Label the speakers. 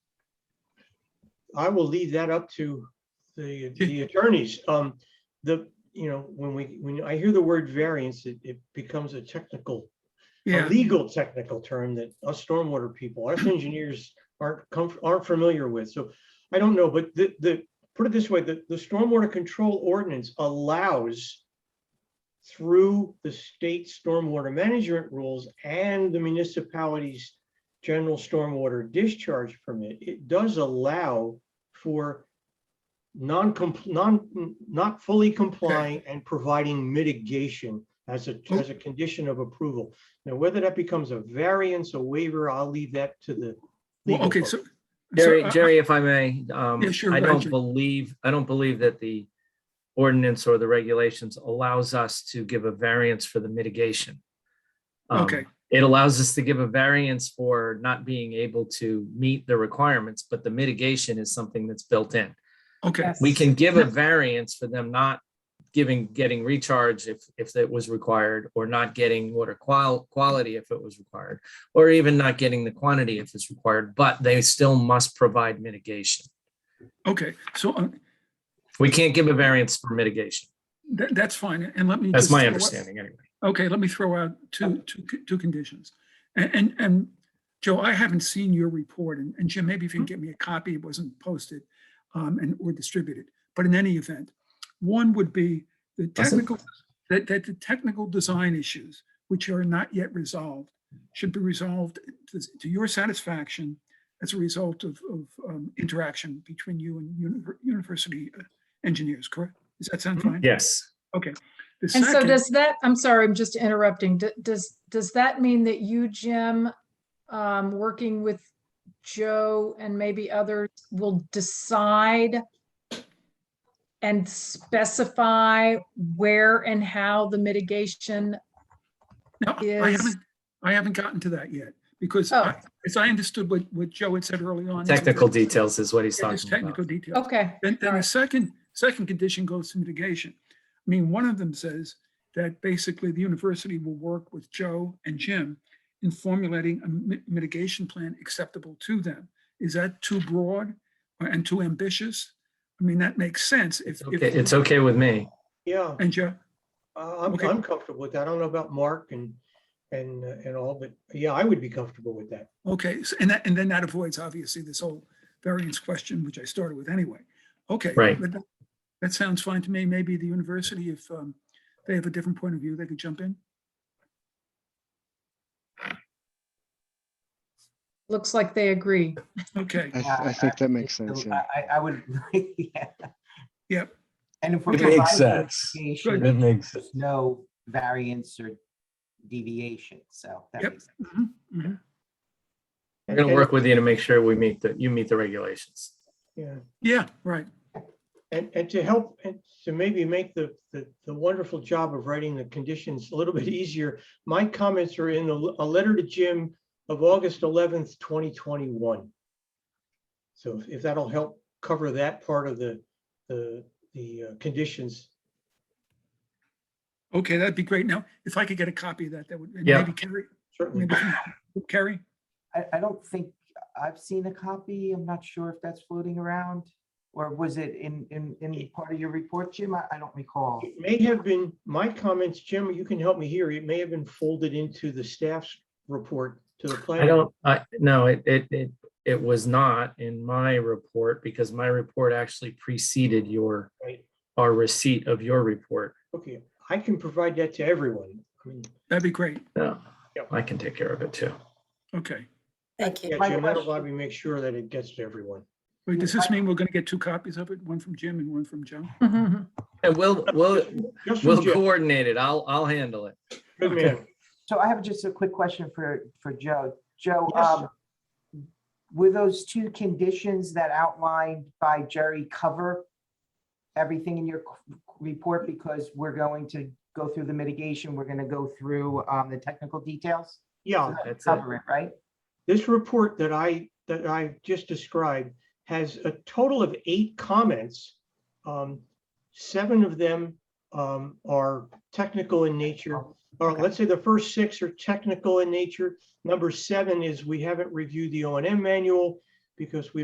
Speaker 1: I will leave that up to the, the attorneys. Um, the, you know, when we, when I hear the word variance, it, it becomes a technical, a
Speaker 2: Yeah,
Speaker 1: legal technical term that us stormwater people, us engineers aren't comf aren't familiar with. So I don't know, but the, the, put it this way, the, the stormwater control ordinance allows through the state stormwater management rules and the municipality's general stormwater discharge permit, it does allow for non, non, not fully complying and providing mitigation as a, as a condition of approval. Now, whether that becomes a variance, a waiver, I'll leave that to the.
Speaker 2: well,
Speaker 1: legal
Speaker 2: okay,
Speaker 1: folks.
Speaker 2: so. so,
Speaker 3: Jerry,
Speaker 2: uh,
Speaker 3: Jerry, if I may, um,
Speaker 2: Yeah, sure,
Speaker 3: I don't
Speaker 2: Roger.
Speaker 3: believe, I don't believe that the ordinance or the regulations allows us to give a variance for the mitigation. Um,
Speaker 2: Okay,
Speaker 3: It allows us to give a variance for not being able to meet the requirements, but the mitigation is something that's built in.
Speaker 2: okay,
Speaker 3: We can give a
Speaker 2: Yeah.
Speaker 3: variance for them not giving, getting recharge if, if that was required, or not getting water qual- quality if it was required, or even not getting the quantity if it's required, but they still must provide mitigation.
Speaker 2: okay. So uh,
Speaker 3: We can't give a variance for mitigation.
Speaker 2: that, that's fine. And let me.
Speaker 3: That's
Speaker 2: just
Speaker 3: my
Speaker 2: throw out-
Speaker 3: understanding anyway.
Speaker 2: Okay, let me throw out two, two, c- two conditions. And, and, and Joe, I haven't seen your report and, and Jim, maybe if you can get me a copy, it wasn't posted um, and, or distributed. But in any event, one would be the technical, that, that the technical design issues, which are not yet resolved, should be resolved to to your satisfaction as a result of, of um, interaction between you and univer- university uh, engineers, correct? Does that sound fine?
Speaker 3: Yes.
Speaker 2: The
Speaker 4: And so
Speaker 2: second-
Speaker 4: does that, I'm sorry, I'm just interrupting. D- Does, does that mean that you, Jim, um, working with Joe and maybe others will decide and specify where and how the mitigation?
Speaker 2: No, I
Speaker 4: is-
Speaker 2: haven't, I haven't gotten to that yet, because
Speaker 4: Oh.
Speaker 2: I- as I understood what, what Joe had said early on.
Speaker 3: Technical details is what he's
Speaker 2: Yeah, there's
Speaker 3: talking about.
Speaker 2: Technical details.
Speaker 4: Okay,
Speaker 2: Then, then the second, second condition goes to mitigation. I mean, one of them says that basically the university will work with Joe and Jim in formulating a mi- mitigation plan acceptable to them. Is that too broad or- and too ambitious? I mean, that makes sense if. if-
Speaker 3: Okay, It's okay with me.
Speaker 1: Yeah.
Speaker 2: And Joe,
Speaker 1: Uh, I'm,
Speaker 2: Okay.
Speaker 1: I'm comfortable with that. I don't know about Mark and, and, uh, and all, but yeah, I would be comfortable with that.
Speaker 2: Okay, so- and that, and then that avoids obviously this whole variance question, which I started with anyway. Okay.
Speaker 3: Right.
Speaker 2: but That that sounds fine to me. Maybe the university, if um, they have a different point of view, they could jump in.
Speaker 4: looks like they agree.
Speaker 2: Okay,
Speaker 5: I, th-
Speaker 6: Yeah,
Speaker 5: I think that makes sense, yeah.
Speaker 6: I, I- I would, yeah.
Speaker 2: Yep.
Speaker 6: And if we.
Speaker 7: It makes
Speaker 6: provide
Speaker 7: sense.
Speaker 6: mitigation,
Speaker 7: It makes sense.
Speaker 6: there's No variance or deviation, so. that
Speaker 2: Yep.
Speaker 6: makes sense.
Speaker 2: Mhm, mhm.
Speaker 3: We're going to work with you to make sure we meet the, you meet the regulations.
Speaker 1: Yeah,
Speaker 2: yeah, right.
Speaker 1: and, and to help, and to maybe make the, the, the wonderful job of writing the conditions a little bit easier, my comments are in a, a letter to Jim of August eleventh, twenty twenty-one. So if- if that'll help cover that part of the, the, the uh, conditions.
Speaker 2: Okay, that'd be great. Now, if I could get a copy of that, that would, and
Speaker 3: Yeah.
Speaker 2: maybe Carrie,
Speaker 1: Certainly,
Speaker 2: maybe Carrie?
Speaker 6: I, I don't think, I've seen a copy, I'm not sure if that's floating around, or was it in, in, in part of your report, Jim? I, I don't recall.
Speaker 1: it may have been, my comments, Jim, you can help me here, it may have been folded into the staff's report to the planning.
Speaker 3: I don't, I, no, it, it, it, it was not in my report because my report actually preceded your,
Speaker 1: Right.
Speaker 3: our receipt of your report.
Speaker 1: Okay, I can provide that to everyone. I mean,
Speaker 2: That'd be great.
Speaker 3: No,
Speaker 1: Yep.
Speaker 3: I can take care of it too.
Speaker 2: Okay.
Speaker 8: Thank you.
Speaker 1: yeah,
Speaker 6: My
Speaker 1: Jim, that'll
Speaker 6: question-
Speaker 1: probably make sure that it gets to everyone.
Speaker 2: Wait, does
Speaker 6: Yeah,
Speaker 2: this
Speaker 6: I-
Speaker 2: mean we're going to get two copies of it, one from Jim and one from Joe?
Speaker 3: And we'll, we'll,
Speaker 1: Just from
Speaker 3: we'll
Speaker 1: Jim,
Speaker 3: coordinate it. I'll, I'll handle it.
Speaker 1: good man.
Speaker 6: So I have just a quick question for, for Joe. Joe,
Speaker 1: Yes,
Speaker 6: um, were those two conditions that outlined by Jerry cover everything in your c- report? Because we're going to go through the mitigation, we're going to go through um, the technical details,
Speaker 1: Yeah,
Speaker 3: That's it.
Speaker 6: cover it, right?
Speaker 1: this report that I, that I just described has a total of eight comments. Um, Seven of them um, are technical in nature, or let's say the first six are technical in nature. Number seven is we haven't reviewed the O and M manual because we